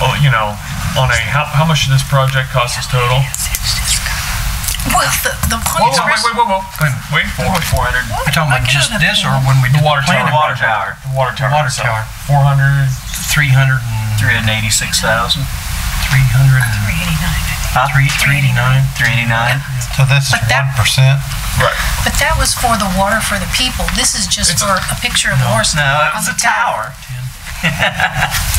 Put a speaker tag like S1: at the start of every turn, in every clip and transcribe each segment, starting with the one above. S1: oh, you know, on a, how, how much did this project cost us total?
S2: Well, the, the
S1: Whoa, whoa,
S2: point
S1: wait, wait, whoa, whoa, Glenn, wait for it.
S3: Four hundred.
S4: You're talking about just this or when we
S1: The
S4: did
S1: water
S4: the
S1: tower.
S4: planning?
S3: Water tower.
S1: The water tower.
S4: Water
S1: itself.
S4: tower.
S1: 400.
S4: 300 and,
S3: Three hundred eighty-six thousand.
S4: 300 and,
S2: three eighty nine, I think.
S3: Huh?
S4: three- 389.
S3: Three eighty-nine.
S5: So that's one
S2: But that-
S5: percent.
S1: Right.
S2: But that was for the water for the people. This is just for a picture of horse.
S3: No, it
S2: on
S3: was
S2: the
S3: a tower.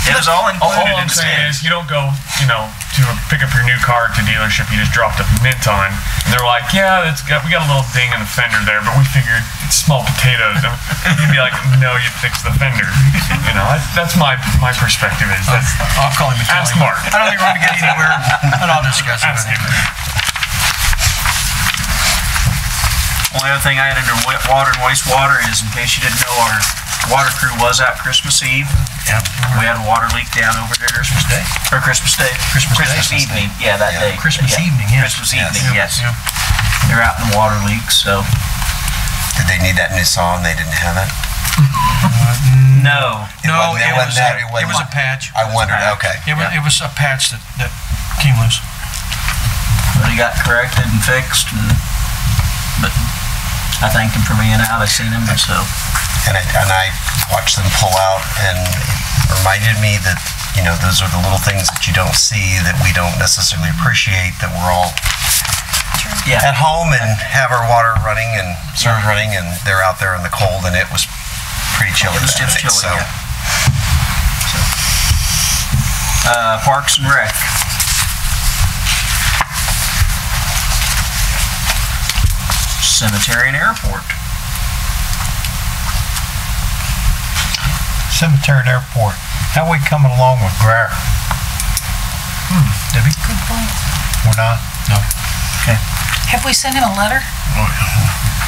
S3: It was all
S1: All, all
S3: included
S1: I'm
S3: in the
S1: saying
S3: sand.
S1: is, you don't go, you know, to pick up your new car at the dealership you just dropped a mint on, and they're like, "Yeah, it's got we got a little ding in the fender there, but we figured it's small potatoes." And you'd be like, "No, you fix the fender." You know, that's, that's my my perspective is that's
S4: I'll call him and tell
S1: Ask
S4: him.
S1: Mark.
S4: I don't think we're gonna get anywhere, but I'll discuss it with
S1: Ask
S4: him.
S1: him.
S3: Only other thing I had under wa- water and wastewater is, in case you didn't know, our water crew was out Christmas Eve.
S4: Yeah.
S3: We had a water leak down over there. Christmas
S4: Day?
S3: Or Christmas Day.
S4: Christmas Day.
S3: Christmas evening, yeah, that day.
S4: Christmas evening, yeah.
S3: Christmas evening, yes.
S4: Yeah.
S3: They're out in the water leak, so.
S6: Did they need that new song? They didn't have it.
S3: Mm. No.
S4: No, it
S6: wasn't- it
S4: was,
S6: wasn't that, it
S4: a- it was a
S6: wasn't-
S4: patch.
S6: I wondered. Okay.
S4: It was, it was a patch that, that came loose.
S3: But he got corrected and fixed and, but I thanked him for being out. I seen him, so.
S6: And I, and I watched them pull out, and it reminded me that you know those are the little things that you don't see that we don't necessarily appreciate that we're all
S3: Yeah.
S6: at home and have our water running and serve running, and they're out there in the cold, and it was pretty chilly.
S3: It was just
S6: that day,
S3: chilly,
S6: so.
S3: yeah. Uh, Parks and Rec. Cemetery and Airport.
S5: Cemetery and airport. How we coming along with Greer?
S4: Debbie?
S2: Good point.
S5: We're not.
S2: Have we sent him a letter?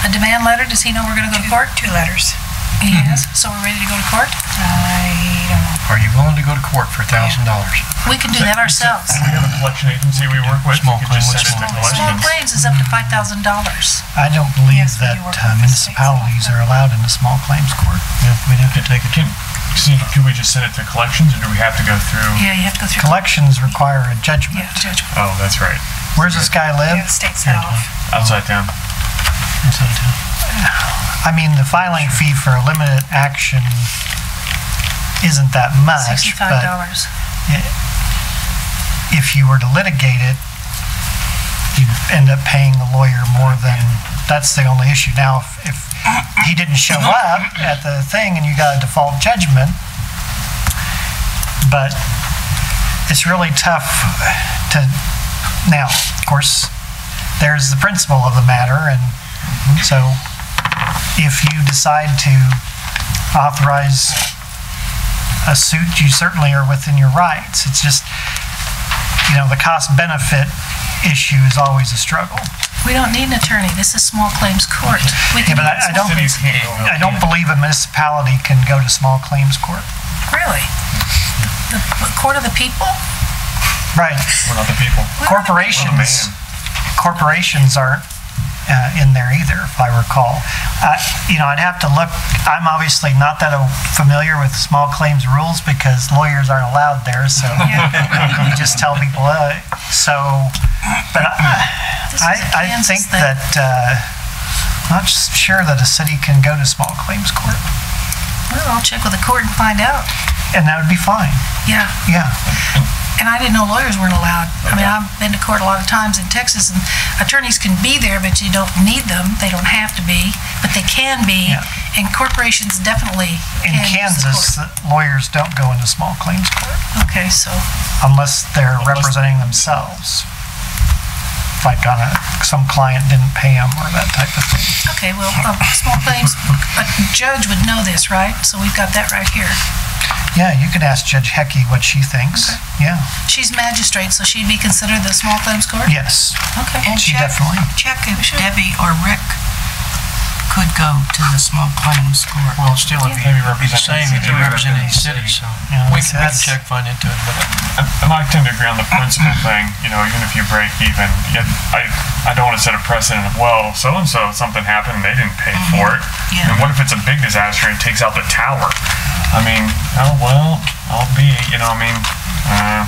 S2: A demand letter? Does he know we're gonna go to court? Two letters. He has? So we're ready to go to court? I don't know.
S4: Are you willing to go to court for a thousand dollars?
S2: We can do that ourselves.
S1: We have a collection agency we work with.
S4: Small
S1: You could just
S4: claim,
S1: send
S4: small
S1: it to
S4: claim.
S1: collection.
S2: Small claims is up to five thousand dollars.
S7: I don't believe
S2: Yes, we
S7: that
S2: do work
S7: uh,
S2: with the states.
S7: municipalities are allowed into small claims court. We'd have to take it.
S1: Can, see, can we just send it to collections, or do we have to go through?
S2: Yeah, you have to go through.
S7: Collections require a judgment.
S2: Yeah, judge.
S1: Oh, that's right.
S7: Where's this guy live?
S2: State set off.
S1: Outside town.
S7: Inside town. I mean, the filing fee for a limited action isn't that much,
S2: Sixty-five
S7: but
S2: dollars.
S7: if you were to litigate it, you'd end up paying the lawyer more than, that's the only issue. Now, if, if he didn't show up at the thing and you got a default judgment, but it's really tough to, now, of course, there's the principle of the matter, and so if you decide to authorize a suit, you certainly are within your rights. It's just, you know, the cost benefit issue is always a struggle.
S2: We don't need an attorney. This is small claims court. We
S7: Yeah,
S2: can
S7: but
S2: do
S7: I, I
S2: small-
S7: don't,
S1: Cities can't go.
S7: I don't believe a municipality can go to small claims court.
S2: Really? The the court of the people?
S7: Right.
S1: We're not the people.
S7: Corporations, corporations aren't uh, in there either, if I recall. Uh, You know, I'd have to look, I'm obviously not that uh, familiar with small claims rules because lawyers aren't allowed there, so you just tell people, uh, so, but I-
S2: This is a
S7: I, I
S2: Kansas
S7: think
S2: thing.
S7: that, uh, not s- sure that a city can go to small claims court,
S2: Well, I'll check with the court and find out.
S7: and that would be fine,
S2: Yeah.
S7: yeah.
S2: And I didn't know lawyers weren't allowed. I mean, I've been to court a lot of times in Texas, and attorneys can be there, but you don't need them. They don't have to be, but they can be.
S7: Yeah.
S2: And corporations definitely can
S7: In
S2: use the
S7: Kansas, the lawyers don't go into small claims court
S2: court. Okay, so,
S7: unless they're representing themselves. Like on a, some client didn't pay them or that type of thing.
S2: okay, well, um, small claims, a judge would know this, right? So we've got that right here.
S7: Yeah, you could ask Judge Heckey what she thinks. Yeah,
S2: She's magistrate, so she'd be considered the small claims court?
S7: yes,
S2: Okay.
S8: And
S7: she
S8: check-
S7: definitely.
S8: Check if Debbie or Rick could go to the small claims court.
S4: Well, still, if you be the same, if you
S3: Yeah.
S4: represent any city, so.
S7: Yeah,
S4: We can we can
S7: that's-
S4: check, find into it, but
S1: And I tend to agree on the principle thing, you know, even if you break even, yet I, I don't want to set a precedent of, well, so-and-so, something happened, they didn't pay for it.
S8: Yeah.
S1: And what if it's a big disaster and takes out the tower? I mean, oh, well, I'll be, you know, I mean, uh,